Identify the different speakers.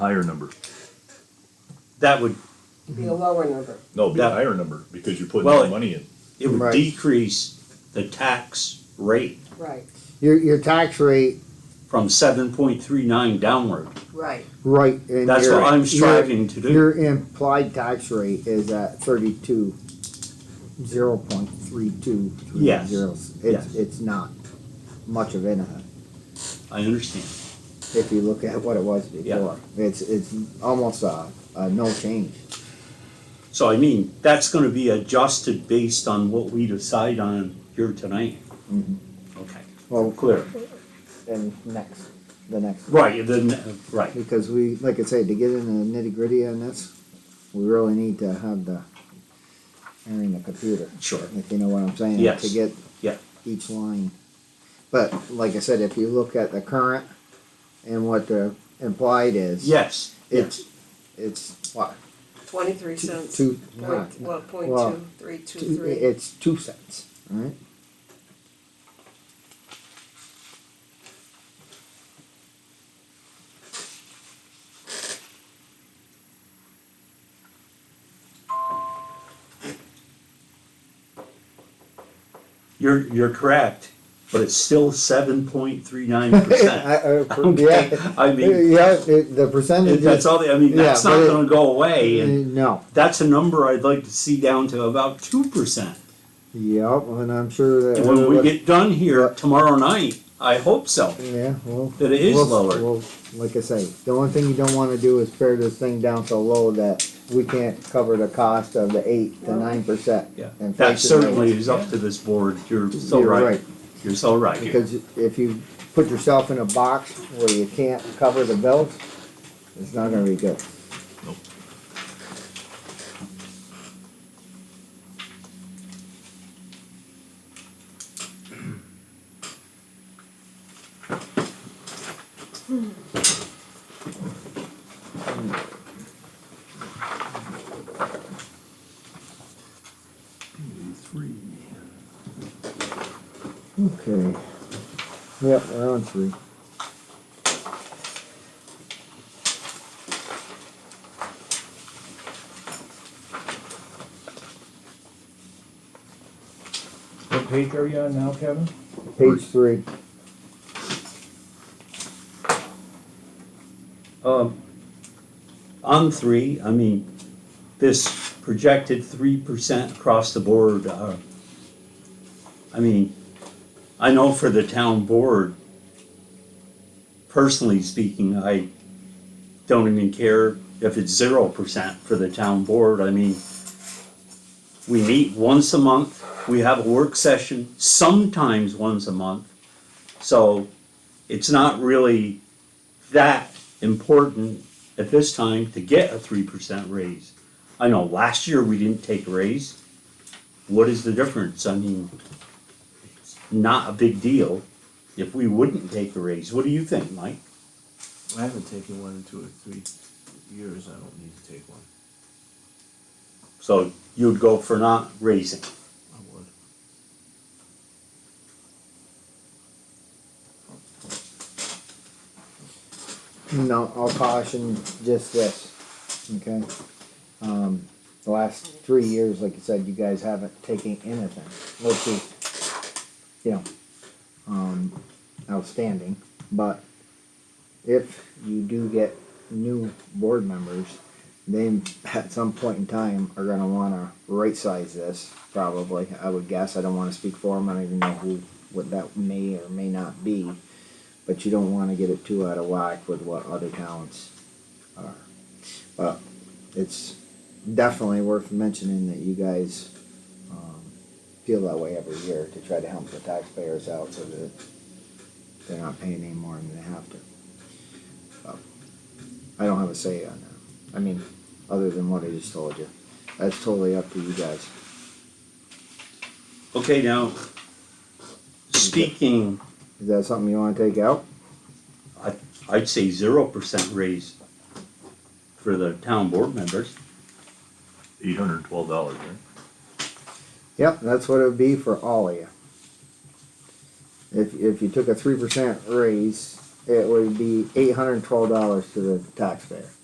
Speaker 1: higher number.
Speaker 2: That would,
Speaker 3: be a lower number.
Speaker 1: No, it'd be a
Speaker 2: Yeah.
Speaker 1: higher number because you're putting
Speaker 2: Well,
Speaker 1: more money in.
Speaker 2: it would
Speaker 4: Right.
Speaker 2: decrease the tax rate
Speaker 3: Right,
Speaker 4: Your, your tax rate,
Speaker 2: from seven point three nine downward.
Speaker 3: right.
Speaker 4: right, and
Speaker 2: That's
Speaker 4: your-
Speaker 2: what I'm
Speaker 4: your-
Speaker 2: striving to do.
Speaker 4: Your implied tax rate is at thirty-two, zero point three two three
Speaker 2: Yes,
Speaker 4: zeros.
Speaker 2: yes.
Speaker 4: It's, it's not much of anything,
Speaker 2: I understand.
Speaker 4: if you look at what it was
Speaker 2: Yeah.
Speaker 4: before. It's, it's almost a, a no change.
Speaker 2: So I mean, that's gonna be adjusted based on what we decide on here tonight.
Speaker 4: Mhm.
Speaker 2: Okay,
Speaker 4: Well,
Speaker 2: clear.
Speaker 4: and next, the next.
Speaker 2: Right, then, right.
Speaker 4: Because we, like I said, to get in the nitty gritty on this, we really need to have the, I mean, the computer.
Speaker 2: Sure.
Speaker 4: If you know what I'm saying.
Speaker 2: Yes.
Speaker 4: To get.
Speaker 2: Yeah.
Speaker 4: Each line. But like I said, if you look at the current and what the implied is.
Speaker 2: Yes,
Speaker 4: It's, it's what,
Speaker 3: Twenty-three
Speaker 4: two,
Speaker 3: cents.
Speaker 4: two,
Speaker 3: Point,
Speaker 4: what,
Speaker 3: well, point
Speaker 4: Well,
Speaker 3: two, three, two,
Speaker 4: two,
Speaker 3: three.
Speaker 4: it's two cents, alright?
Speaker 2: you're, you're correct, but it's still seven point three nine percent. Okay,
Speaker 4: uh, Yeah, Uh,
Speaker 2: I mean,
Speaker 4: yeah, it- the percentage is.
Speaker 2: that's all, the- I mean,
Speaker 4: Yeah,
Speaker 2: that's
Speaker 4: but
Speaker 2: not
Speaker 4: it- Mm-hmm.
Speaker 2: gonna go away and
Speaker 4: No,
Speaker 2: that's a number I'd like to see down to about two percent.
Speaker 4: yep, and I'm sure that.
Speaker 2: And when we
Speaker 4: what-
Speaker 2: get done here tomorrow night, I hope so,
Speaker 4: Yeah, well.
Speaker 2: that it is
Speaker 4: Well,
Speaker 2: lower.
Speaker 4: Well, like I say, the only thing you don't wanna do is pare this thing down so low that we can't cover the cost of the eight to
Speaker 3: No.
Speaker 4: nine percent.
Speaker 2: Yeah,
Speaker 4: And
Speaker 2: that
Speaker 4: factor
Speaker 2: certainly is up to this board, you're so
Speaker 4: You're
Speaker 2: right,
Speaker 4: right.
Speaker 2: you're so right.
Speaker 4: Because if you put yourself in a box where you can't cover the bills, it's not gonna be good. Okay. Yep, we're on three.
Speaker 5: What page are you on now, Kevin?
Speaker 4: Page three.
Speaker 2: Um, On three, I mean, this projected three percent across the board, uh, I mean, I know for the town board, personally speaking, I don't even care if it's zero percent for the town board, I mean, we meet once a month, we have a work session, sometimes once a month. So it's not really that important at this time to get a three percent raise. I know last year we didn't take a raise. What is the difference? I mean, it's not a big deal if we wouldn't take a raise. What do you think, Mike?
Speaker 6: I haven't taken one in two or three years. I don't need to take one.
Speaker 2: So you'd go for not raising.
Speaker 6: I would.
Speaker 4: No, I'll caution just this, okay? Um, the last three years, like you said, you guys haven't taken anything, which is, you know, um, outstanding, but if you do get new board members, they at some point in time are gonna wanna right-size this, probably, I would guess, I don't wanna speak for them, I don't even know who, what that may or may not be but you don't wanna get it too out of whack with what other towns are. But it's definitely worth mentioning that you guys, um, feel that way every year to try to help the taxpayers out so that they're not paying any more than they have to. But I don't have a say on that, I mean, other than what I just told you, that's totally up to you guys.
Speaker 2: Okay, now, speaking,
Speaker 4: Is that something you wanna take out?
Speaker 2: I'd say zero percent raise for the town board members.
Speaker 1: Eight hundred and twelve dollars, right?
Speaker 4: Yep, that's what it would be for all of you. If, if you took a three percent raise, it would be eight hundred and twelve dollars to the taxpayer.